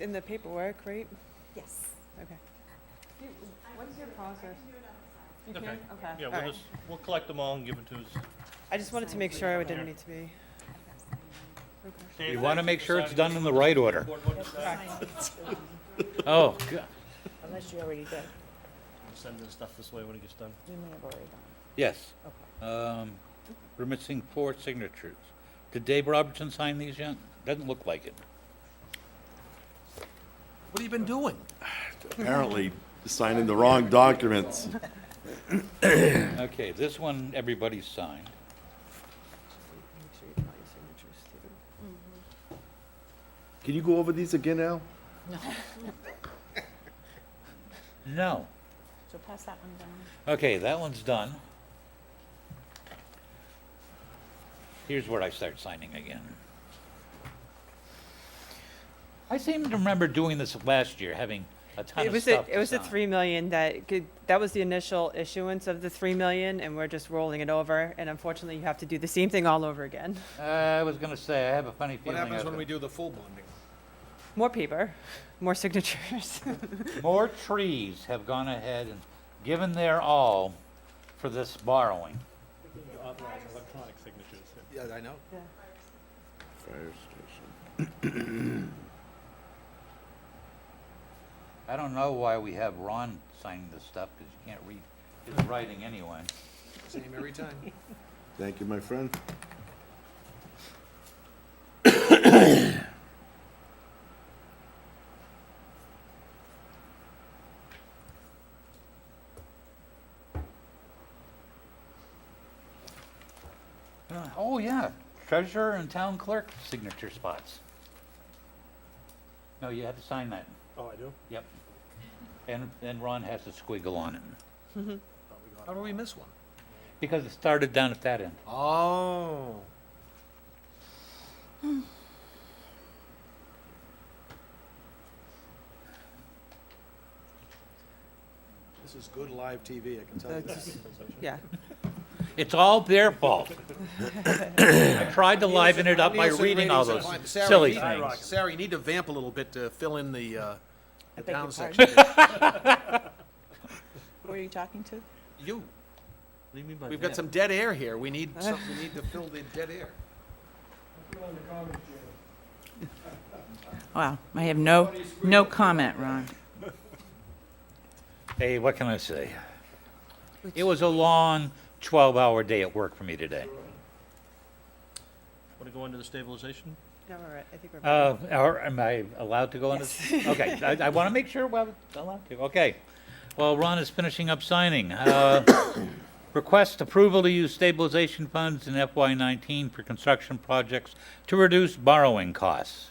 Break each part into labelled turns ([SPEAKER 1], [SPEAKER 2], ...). [SPEAKER 1] in the paperwork, right?
[SPEAKER 2] Yes.
[SPEAKER 1] Okay. What's your process? You
[SPEAKER 3] Okay.
[SPEAKER 1] can? Okay.
[SPEAKER 3] Yeah,
[SPEAKER 1] All
[SPEAKER 3] we'll
[SPEAKER 1] right.
[SPEAKER 3] just, we'll collect them all and give them to us.
[SPEAKER 1] I just wanted to make sure it didn't need to be.
[SPEAKER 3] Dave,
[SPEAKER 4] You want to
[SPEAKER 3] thank
[SPEAKER 4] make sure it's
[SPEAKER 3] deciding
[SPEAKER 4] done in the right order.
[SPEAKER 3] which board what to decide.
[SPEAKER 4] Oh, go-
[SPEAKER 2] Unless you already did.
[SPEAKER 3] We'll Send this stuff this way when it gets done.
[SPEAKER 2] You may have already done.
[SPEAKER 4] yes. Um, We're missing four signatures. Did Dave Robertson sign these yet? Doesn't look like it.
[SPEAKER 5] What have you been doing?
[SPEAKER 6] Apparently signing the wrong documents.
[SPEAKER 4] Okay, this one, everybody's signed.
[SPEAKER 1] Make sure you find your signatures too.
[SPEAKER 6] Can you go over these again, Al?
[SPEAKER 4] No.
[SPEAKER 2] So pass that one down.
[SPEAKER 4] Okay, that one's done. Here's where I start signing again. I seem to remember doing this last year, having a ton
[SPEAKER 1] It
[SPEAKER 4] of
[SPEAKER 1] was a,
[SPEAKER 4] stuff
[SPEAKER 1] it was
[SPEAKER 4] to
[SPEAKER 1] a
[SPEAKER 4] sign.
[SPEAKER 1] three million that could, that was the initial issuance of the three million and we're just rolling it over. And unfortunately, you have to do the same thing all over again.
[SPEAKER 4] Uh, I was gonna say, I have a funny
[SPEAKER 5] What
[SPEAKER 4] feeling.
[SPEAKER 5] happens
[SPEAKER 4] I-
[SPEAKER 5] when we do the full bonding?
[SPEAKER 1] More paper, more signatures.
[SPEAKER 4] More trees have gone ahead and given their all for this borrowing.
[SPEAKER 3] Electronic signatures.
[SPEAKER 5] Yeah, I know.
[SPEAKER 6] Fire station.
[SPEAKER 4] I don't know why we have Ron signing this stuff, because you can't read his writing anyway.
[SPEAKER 5] Same every time.
[SPEAKER 6] Thank you, my friend.
[SPEAKER 4] Oh, yeah, treasurer and town clerk signature spots. No, you have to sign that,
[SPEAKER 3] Oh, I do?
[SPEAKER 4] yep. And, and Ron has a squiggle on it,
[SPEAKER 5] How do we miss one?
[SPEAKER 4] because it started down at that end.
[SPEAKER 5] Oh. This is good live TV, I can tell you that.
[SPEAKER 1] Yeah.
[SPEAKER 4] It's all their fault. I tried to liven it up by
[SPEAKER 5] Nielsen
[SPEAKER 4] reading all those
[SPEAKER 5] ratings are fine. Sarah,
[SPEAKER 4] silly
[SPEAKER 5] you need-
[SPEAKER 4] things.
[SPEAKER 5] Sarah, you need to vamp a little bit to fill in the, uh, the
[SPEAKER 2] beg
[SPEAKER 5] town
[SPEAKER 2] your
[SPEAKER 5] section.
[SPEAKER 2] Who are you talking to?
[SPEAKER 5] You,
[SPEAKER 3] What do you mean by
[SPEAKER 5] we've got some dead air here. We need some, we need to fill the dead air.
[SPEAKER 7] Wow, I have no, no comment, Ron.
[SPEAKER 4] Hey, what can I say? It was a long 12-hour day at work for me today.
[SPEAKER 3] Want to go into the stabilization?
[SPEAKER 1] No, we're right. I think we're.
[SPEAKER 4] Uh, or am I allowed to go on this? Okay, I, I want to make sure we're allowed to, okay. Well, Ron is finishing up signing. Uh, Request approval to use stabilization funds in FY19 for construction projects to reduce borrowing costs.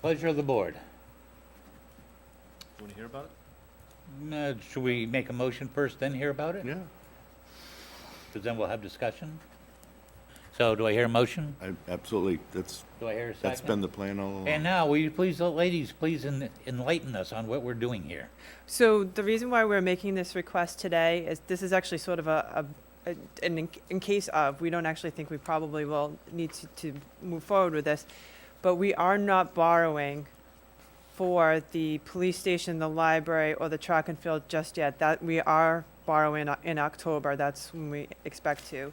[SPEAKER 4] Pleasure of the board.
[SPEAKER 3] Want to hear about it?
[SPEAKER 4] Uh, Should we make a motion first, then hear about it?
[SPEAKER 6] Yeah.
[SPEAKER 4] Because then we'll have discussion. So do I hear a motion?
[SPEAKER 6] I, absolutely. That's,
[SPEAKER 4] Do I hear a 2nd
[SPEAKER 6] that's been the plan all along.
[SPEAKER 4] And now, will you please, uh, ladies, please en- enlighten us on what we're doing here?
[SPEAKER 1] So the reason why we're making this request today is this is actually sort of a, a, a- an in, in case of, we don't actually think we probably will need to, to move forward with this, but we are not borrowing for the police station, the library, or the track and field just yet. That, we are borrowing o- in October, that's when we expect to.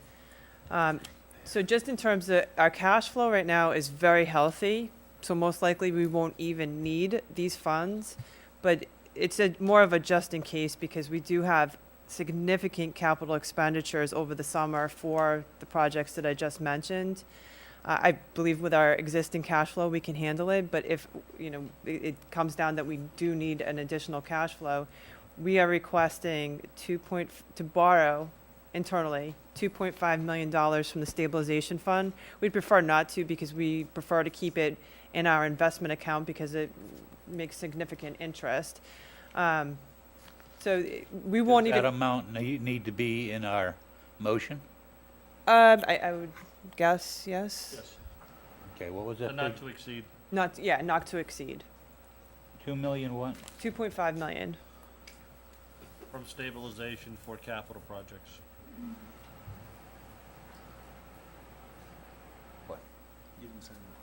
[SPEAKER 1] Um, so just in terms of, our cash flow right now is very healthy, so most likely we won't even need these funds. But it's a, more of a just in case because we do have significant capital expenditures over the summer for the projects that I just mentioned. Uh, I believe with our existing cash flow, we can handle it, but if, you know, it, it comes down that we do need an additional cash flow, we are requesting two point, f- to borrow internally, two point five million dollars from the stabilization fund. We'd prefer not to because we prefer to keep it in our investment account because it makes significant interest. Um, so eh, we won't
[SPEAKER 4] Does
[SPEAKER 1] even.
[SPEAKER 4] That amount ne- need to be in our motion?
[SPEAKER 1] Um, I, I would guess, yes.
[SPEAKER 3] Yes.
[SPEAKER 4] Okay, what was
[SPEAKER 3] So
[SPEAKER 4] that?
[SPEAKER 3] Not to exceed,
[SPEAKER 1] Not, yeah, not to exceed.
[SPEAKER 4] Two million what?
[SPEAKER 1] 2.5 million.
[SPEAKER 3] from stabilization for capital projects.
[SPEAKER 5] You didn't sign that.